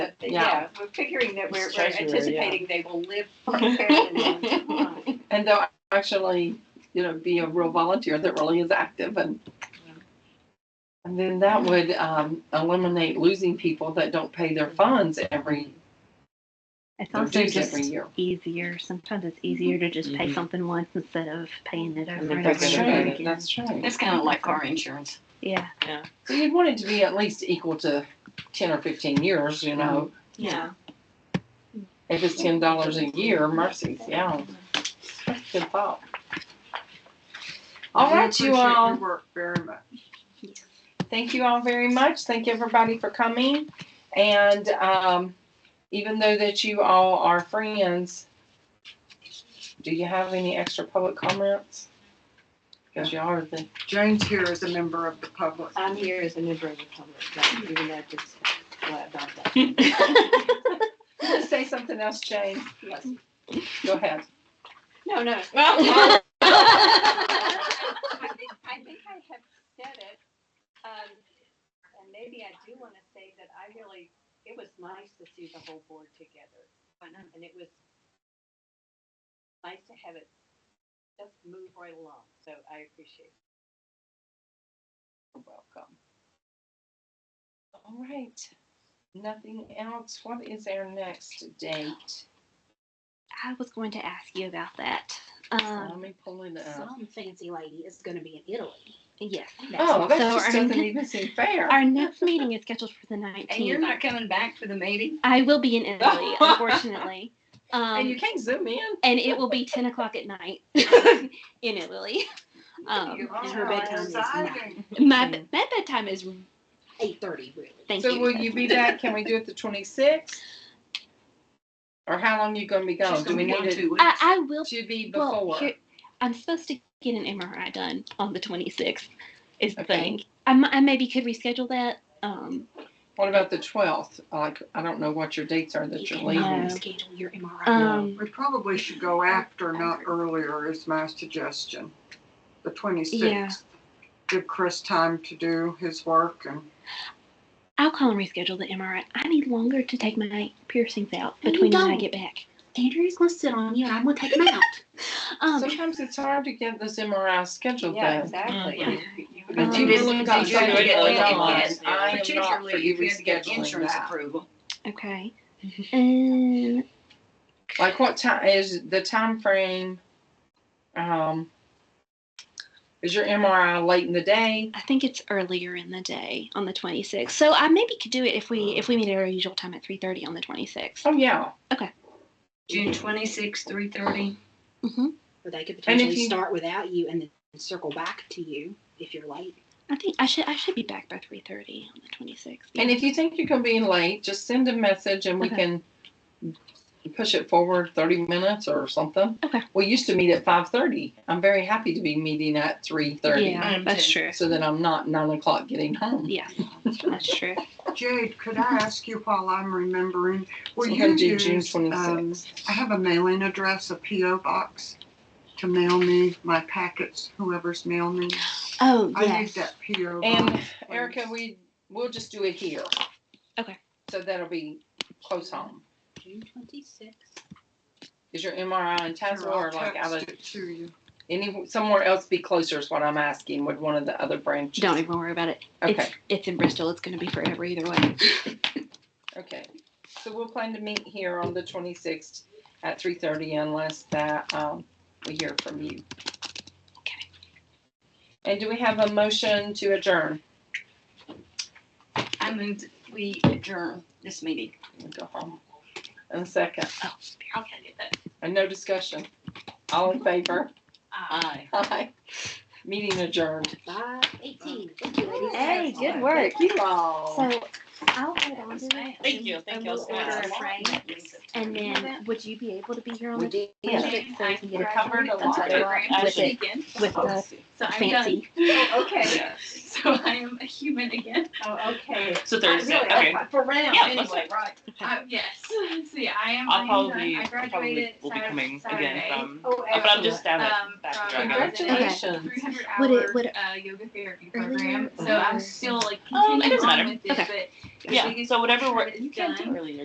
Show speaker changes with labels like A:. A: Yeah.
B: yeah, we're figuring that we're
A: It's
B: we're
A: treasurer, yeah.
B: anticipating they will live for a fairly long time.
A: And they'll actually, you know, be a real volunteer that really is active and. And then that would um, eliminate losing people that don't pay their funds every,
C: It's
A: their
C: also
A: dues every
C: just
A: year.
C: easier. Sometimes it's easier to just pay
D: Mhm.
C: something once instead of paying it
D: And
C: over and
D: then
C: over
A: That's
D: forget
C: and
D: about
C: over
A: true,
C: again.
A: that's true.
D: It's kind of like car insurance.
C: Yeah.
A: So you'd want it to be at least equal to ten or fifteen years, you know,
C: Yeah.
A: if it's ten dollars a year, mercies, yeah. Good thought. All
B: We
A: right, you
B: appreciate your
A: all.
B: Work very much.
A: Thank you all very much. Thank everybody for coming. And um, even though that you all are friends, do you have any extra public comments? Because y'all are the,
B: Jane's here as a member of the public.
E: I'm here as a member of the public, not even though I just glad about that.
A: say something else, Jane.
E: Yes.
A: Go ahead.
E: No, no.
D: Well,
E: I think, I think I have said it. Um, and maybe I do want to say that I really, it was nice to see the whole board together. And it was nice to have it just move right along. So I appreciate it.
A: You're Welcome. All right. Nothing else. What is our next date?
C: I was going to ask you about that. Um,
A: Let me pull it up.
F: Some fancy lady is going to be in Italy.
C: yes.
A: Oh, that
C: so
A: just
C: our,
A: doesn't even seem fair.
C: our next meeting is scheduled for the 19th.
D: And you're not coming back for the meeting?
C: I will be in Italy, unfortunately. Um,
A: And you can't zoom in.
C: and it will be 10 o'clock at night in Italy. Um,
B: You
F: and her
B: are
F: bedtime is
B: exciting.
C: my, be- my bedtime is,
F: Eight thirty, really.
C: thank
A: So
C: you.
A: will you be back? Can we do it the twenty-sixth? Or how long you gonna be gone?
D: She's
A: Do
D: gonna
A: we
D: be gone
A: need it
D: two weeks.
C: I, I will
A: to be
C: Well,
A: before?
C: here- I'm supposed to get an MRI done on the 26th. Is the
A: Okay.
C: thing. I, mi- I maybe could reschedule that. Um,
A: What about the twelfth? Like, I don't know what your dates are that
F: You
A: you're
F: can
A: leaving.
C: No.
F: schedule your MRI.
C: uh, um,
B: We probably should go after, not earlier, is my suggestion. The twenty-sixth. Give Chris time to do his work and
C: I'll call and reschedule the MRI. I need longer to take my piercings out
F: No, you
C: between when I
F: don't.
C: get back.
F: Andrew's going to sit on you, and I'm going to take him out.
C: Um,
A: Sometimes it's hard to get this MRI scheduled
B: Yeah,
A: though.
B: exactly.
G: Mm-hmm.
D: Yeah.
B: You- you-
A: But
C: Um,
A: you
D: Particularly
A: really got
D: if you
A: something
D: had to get
A: going
D: that
A: on.
D: gas,
A: I am not for
D: particularly
A: you
D: if you had to get
A: rescheduling
D: Insurance
A: that.
D: approval.
C: okay. And
A: Like what time is the time frame? Um, is your MRI late in the day?
C: I think it's earlier in the day on the 26th. So I maybe could do it if we if we meet at our usual time at 3:30 on the 26th.
A: Oh, yeah.
D: June twenty-sixth, three thirty.
F: Mm-hmm. Or they could
A: And if
F: potentially
A: you-
F: start without you and then circle back to you if you're late.
C: I think I should I should be back by 3:30 on the 26th.
A: And if you think you're gonna be late, just send a message and we
C: Okay.
A: can push it forward thirty minutes or something.
C: Okay.
A: We used to meet at five thirty. I'm very happy to be meeting at three thirty.
C: yeah,
D: I'm
C: that's
D: too.
C: true.
A: So that I'm not nine o'clock getting home.
C: Yeah, that's true.
B: Jade, could I ask you while I'm remembering, will
A: So we're
B: you
A: gonna do June
B: use, um,
A: twenty-sixth.
B: I have a mailing address, a PO box, to mail me my packets, whoever's mailing me.
C: Oh
B: I need
C: yes.
B: that PO
A: And
B: box.
A: Erica, we, we'll just do it here.
C: Okay.
A: So that'll be close home.
F: June twenty-sixth.
A: Is your MRI in
B: Sure,
A: Tazewell
B: I'll
A: or like out
B: text
A: of,
B: it To you.
A: any, somewhere else be closer is what I'm asking. Would one of the other branches?
C: Don't even worry about it.
A: Okay.
C: It's, it's in Bristol. It's going to be forever either way.
A: Okay, so we'll plan to meet here on the twenty-sixth at three thirty unless that, um, we hear from you.
C: Okay.
A: And do we have a motion to adjourn?
D: I moved, we adjourn this meeting.
A: Let me Go home. And second,
C: Oh,
D: I'll get that.
A: and no discussion. All in favor?
D: Aye.
A: Aye. Meeting adjourned.
F: Five eighteen. Thank you, ladies.
C: Hey, good
F: Excellent.
C: work.
A: Thank you all.
C: So I'll hold on to that.
D: Thank you, thank
C: and
D: you.
C: We'll
D: I
C: order
D: was
C: a frame. And then would you be able to be here on
F: We
C: the
F: did.
A: Yeah.
C: so we can get our
A: Recovered a lot.
C: With it.
D: again.
C: with the
D: So I'm done.
C: fancy?
E: Oh, okay.
D: So I am a human again.
E: Oh, okay.
G: So Thursday,
E: Really,
G: okay.
E: For round,
G: Yeah, let's
E: anyway, right.
G: Uh,
D: yes. See, I am.
G: I'll probably, I probably will be coming again from,
E: Oh,
G: Uh, but I'm just down at
H: Um,
G: back
H: from-
G: in Dragon.
A: Congratulations.
H: 300
C: Would
H: hour
C: it- would it-
H: uh, yoga therapy
C: Earlier
H: program.
C: or
H: So I'm
C: later?
H: still like
G: Um, it
H: continuing
G: doesn't
H: on
G: matter.
H: with it,
C: Okay.
H: but
G: Yeah, so whatever, work-
H: It's
G: you can do
H: done.
G: earlier.